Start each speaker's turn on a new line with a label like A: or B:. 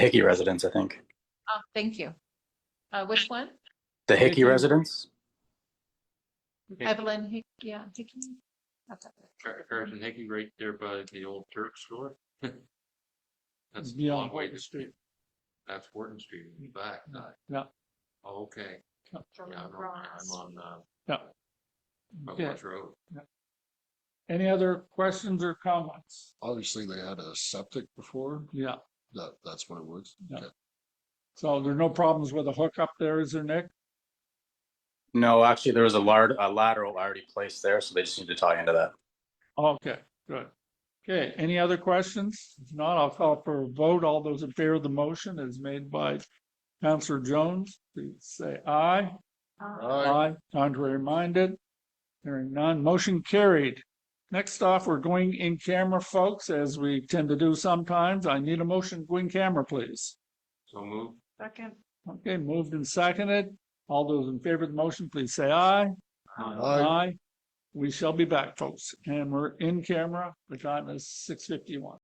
A: Hickey residence, I think.
B: Oh, thank you. Uh, which one?
A: The Hickey
C: Hickey.
A: residence?
C: Hickey.
B: Evelyn, Hick- yeah, Hickey. That's it.
C: Har- Harrison Hickey right there by the old Turk store. That's a long
D: Beyond
C: way
D: Wharton
C: to
D: Street. Mm-hmm.
C: That's Wharton Street, in the back side.
D: Yeah,
C: Okay.
B: From
C: Yeah, I'm on, I'm
B: Ross.
C: on, uh,
D: yeah. Okay,
C: Buckwatch Road.
D: any other questions or comments?
E: Obviously, they had a septic before.
D: Yeah,
E: That, that's what it was.
D: Yeah.
E: Okay.
D: so there are no problems with the hookup there, is there, Nick?
A: No, actually, there was a lar- a lateral already placed there, so they just need to tie into that.
D: Okay, good. Okay, any other questions? If not, I'll call for a vote. All those in favor of the motion is made by Counselor Jones, please say aye.
B: Uh,
E: Aye.
D: Contrary minded? Hearing none, motion carried. Next off, we're going in camera, folks, as we tend to do sometimes. I need a motion, to go in camera, please.
C: So move.
B: Second.
D: Okay, moved and seconded. All those in favor of the motion, please say aye.
E: Aye.
D: We shall be back, folks, and we're in camera. The time is six fifty-one.